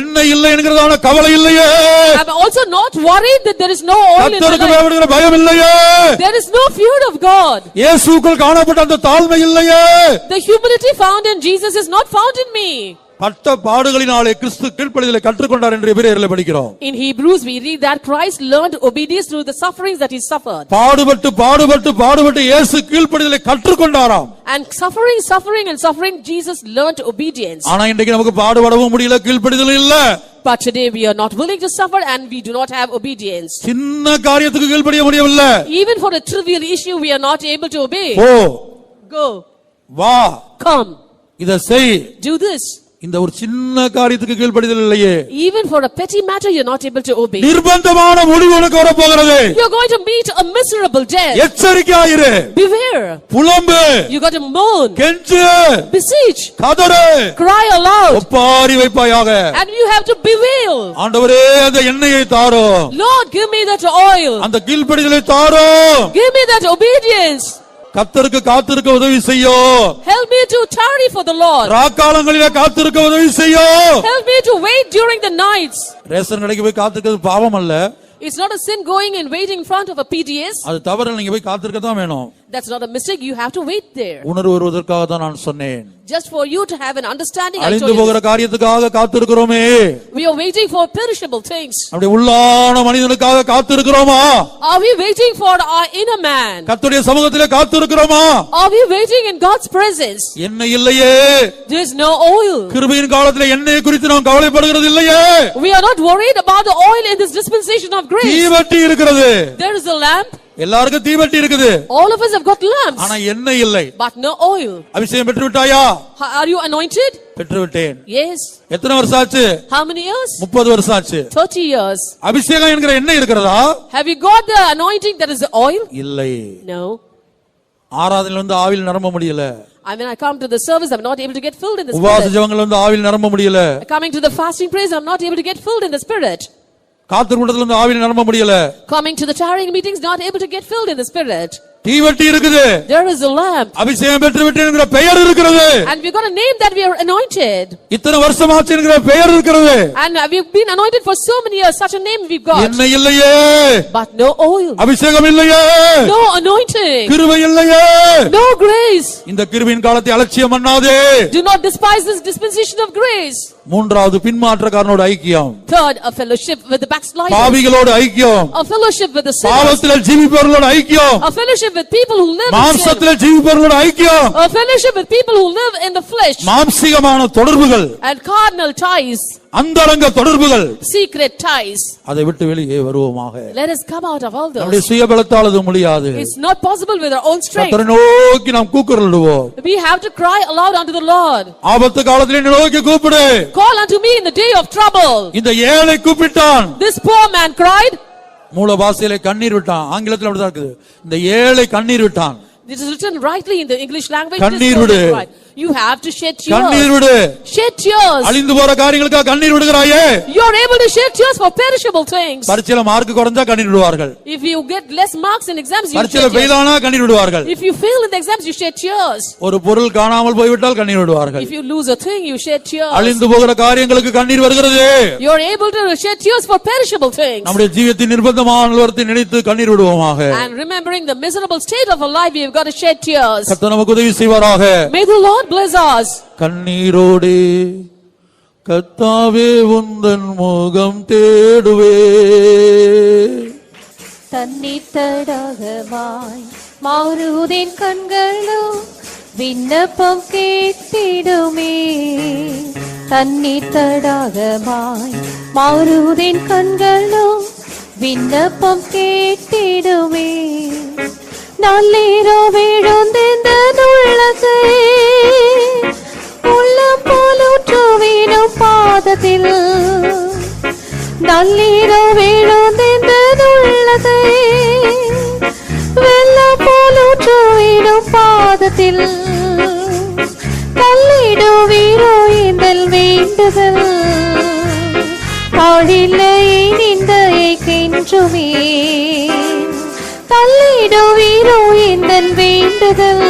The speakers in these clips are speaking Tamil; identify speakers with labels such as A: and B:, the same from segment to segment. A: என்ன இல்லை என்கிறதான கவலை இல்லையே
B: I'm also not worried that there is no oil in my
A: கத்தருக்கு
B: life.
A: பயப்படுகிற பயம் இல்லையே
B: There is no fear of God.
A: இயேசுக்குள் காணப்பட்ட அந்த தாழ்மை இல்லையே
B: The humility found in Jesus is not found in me.
A: பட்ட பாடுகளினாலே கிறிஸ்து கீழ்ப்படிதலை கற்றுக்கொண்டார் என்று எபிரேயர்ல படிக்கிறோம்
B: In Hebrews, we read that Christ learned obedience through the sufferings that he suffered.
A: பாடுபட்டு பாடுபட்டு பாடுபட்டு இயேசு கீழ்ப்படிதலை கற்றுக்கொண்டாராம்
B: And suffering, suffering, and suffering, Jesus learned obedience.
A: ஆனா இன்றைக்கு நமக்கு பாடுபடவும் முடியல கீழ்ப்படிதலும் இல்ல
B: But today we are not willing to suffer and we do not have obedience.
A: சின்ன காரியத்துக்கு கீழ்ப்படிய முடியவில்லை
B: Even for a trivial issue, we are not able to obey.
A: போ
B: Go,
A: வா
B: come,
A: இத செய்
B: do this.
A: இந்த ஒரு சின்ன காரியத்துக்கு கீழ்ப்படிதல் இல்லையே
B: Even for a petty matter, you're not able to obey.
A: நிர்பந்தமான முடிவு உனக்கு வரப்போகிறது
B: You're going to meet a miserable death.
A: எச்சரிக்கையாயிரு
B: Beware.
A: புலம்பு
B: You got to moan,
A: கெஞ்சு
B: beseech,
A: கதறு
B: cry aloud,
A: ஒப்பாரி வைப்பாயாக
B: and you have to bewail.
A: ஆண்டவரே அந்த எண்ணெயை தாரும்
B: Lord, give me that oil.
A: அந்த கீழ்ப்படிதலை தாரும்
B: Give me that obedience.
A: கத்தருக்கு காத்திருக்க உதவி செய்யும்
B: Help me to tarry for the Lord.
A: ராக்காலங்களில காத்திருக்க உதவி செய்யும்
B: Help me to wait during the nights.
A: Ration கடைக்கு போய் காத்திருக்கிறது பாவம் அல்ல
B: It's not a sin going and waiting in front of a PDS.
A: அது தவறு நீங்க போய் காத்திருக்க தான் வேணும்
B: That's not a mistake. You have to wait there.
A: உணர்வு வருவதற்காக தான் நான் சொன்னேன்
B: Just for you to have an understanding. I
A: அழிந்து
B: told you
A: போகிற காரியத்துக்காக காத்திருக்கிறோமே
B: this. We are waiting for perishable things.
A: அப்படி உள்ளான மனிதனுக்காக காத்திருக்கிறோமா
B: Are we waiting for our inner man?
A: கர்த்தருடைய சமூகத்திலே காத்திருக்கிறோமா
B: Are we waiting in God's presence?
A: என்ன இல்லையே
B: There is no oil.
A: கிருபையின் காலத்துல என்னைய குறித்து நாம் கவலைப்படுகிறது இல்லையே
B: We are not worried about the oil in this dispensation of grace.
A: தீவட்டி இருக்கிறது
B: There is a lamp.
A: எல்லாருக்கும் தீவட்டி இருக்குது
B: All of us have got
A: ஆனா
B: lamps,
A: என்ன இல்லை
B: but no oil.
A: அபிஷேகம் பெற்று விட்டாயா
B: Ha- Are you anointed?
A: பெற்று விட்டேன்
B: Yes.
A: எத்தனை வருஷம் ஆச்சு
B: How many years?
A: முப்பது வருஷம் ஆச்சு
B: 30 years.
A: அபிஷேகம் என்கிற எண்ணெய் இருக்கிறதா
B: Have you got the anointing that is the oil?
A: இல்லை
B: No.
A: ஆராதனையில வந்து ஆவில் நிரம்ப முடியல
B: I mean, I come to the service, I'm not able to get filled in the
A: உபவாச
B: spirit.
A: ஜபங்கள் வந்து ஆவில் நிரம்ப முடியல
B: Coming to the fasting praise, I'm not able to get filled in the spirit.
A: காத்திரு கூட்டத்துல வந்து ஆவில் நிரம்ப முடியல
B: Coming to the tarrying meetings, not able to get filled in the spirit.
A: தீவட்டி இருக்குது
B: There is a lamp,
A: அபிஷேகம் பெற்று விட்டேன் என்கிற பெயர் இருக்கிறது
B: and we've got a name that we are anointed.
A: இத்தனை வருஷம் ஆச்சு என்கிற பெயர் இருக்கிறது
B: And uh, we've been anointed for so many years, such a name we've got.
A: என்ன இல்லையே
B: But no oil,
A: அபிஷேகம் இல்லையே
B: no anointing,
A: கிருபை இல்லையே
B: no grace.
A: இந்த கிருபையின் காலத்தை அலட்சியம் பண்ணாதே
B: Do not despise this dispensation of grace.
A: மூன்றாவது பின்மாற்றக்காரனோட ஐக்கியம்
B: Third, a fellowship with the backslider,
A: பாவிகளோட ஐக்கியம்
B: a fellowship with the sinner,
A: பாவத்துல ஜீவிப்பவர்களோட ஐக்கியம்
B: a fellowship with people who live in sin,
A: மாம்சத்துல ஜீவிப்பவர்களோட ஐக்கியம்
B: a fellowship with people who live in the flesh,
A: மாம்சிகமான தொடர்புகள்
B: and carnal ties,
A: அந்தரங்க தொடர்புகள்
B: secret ties.
A: அதை விட்டு வெளியே வருவோமாக
B: Let us come out of all
A: நம்முடைய
B: those.
A: சுயபலத்தால் அது முடியாது
B: It's not possible with our own strength.
A: கத்தரை நோக்கி நாம் கூக்குரலிடுவோம்
B: We have to cry aloud unto the Lord.
A: ஆபத்து காலத்தில் என்னை நோக்கி கூப்பிடு
B: Call unto me in the day of trouble.
A: இந்த ஏழை கூப்பிட்டான்
B: This poor man cried.
A: மூல பாஷையில கண்ணீர் விட்டான் ஆங்கிலத்தில் அப்படிதான் இருக்குது இந்த ஏழை கண்ணீர் விட்டான்
B: This is written rightly in the English language.
A: கண்ணீர்
B: This poor
A: விடு.
B: man cried. You have to shed
A: கண்ணீர்
B: tears.
A: விடு
B: Shed tears.
A: அழிந்து போற காரியங்களுக்காக கண்ணீர் விடுகிறாயே
B: You are able to shed tears for perishable things.
A: பரீட்சையில மார்க் குறைஞ்சா கண்ணீர் விடுவார்கள்
B: If you get less marks in exams, you
A: பரீட்சையில
B: shed tears.
A: பெய்தானா கண்ணீர் விடுவார்கள்
B: If you fail in the exams, you shed tears.
A: ஒரு பொருள் காணாமல் போய்விட்டால் கண்ணீர் விடுவார்கள்
B: If you lose a thing, you shed tears.
A: அழிந்து போகிற காரியங்களுக்கு கண்ணீர் வருகிறது
B: You are able to shed tears for perishable things.
A: நம்முடைய ஜீவியத்தின் நிர்பந்தமான ஒருவத்தை நினைத்து கண்ணீர் விடுவோமாக
B: And remembering the miserable state of our life, we have got to shed tears.
A: கத்த நமக்கு உதவி செய்வாராக
B: May the Lord bless us.
A: கண்ணீரோடே கத்தாவே உந்தன் முகம் தேடுவே
C: தன்னித்தடாகவாய் மாறுவதின் கண்களோ விண்ணப்பம் கேட்டிடுமே தன்னித்தடாகவாய் மாறுவதின் கண்களோ விண்ணப்பம் கேட்டிடுமே நள்ளீரோ விழுந்தெந்த உள்ளத்தை உள்ளம் போலூற்றுவினும் பாதத்தில் നല്ലീരോ വീഴുന്നിന്തുള്ളതേ വെള്ള പോലൂറ്റുവീരും പാദത്തിൽ തള്ളിടുവീരോ ഇന്തൽ വേണ്ടുതൽ പാടില്ലേ നിന്ദയക്കിഞ്ചുമേ തള്ളിടുവീരോ ഇന്തൽ വേണ്ടുതൽ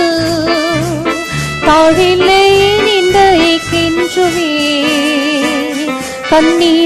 C: താഴില്ലേ നിന്ദയക്കിഞ്ചുമേ கண்ணீர்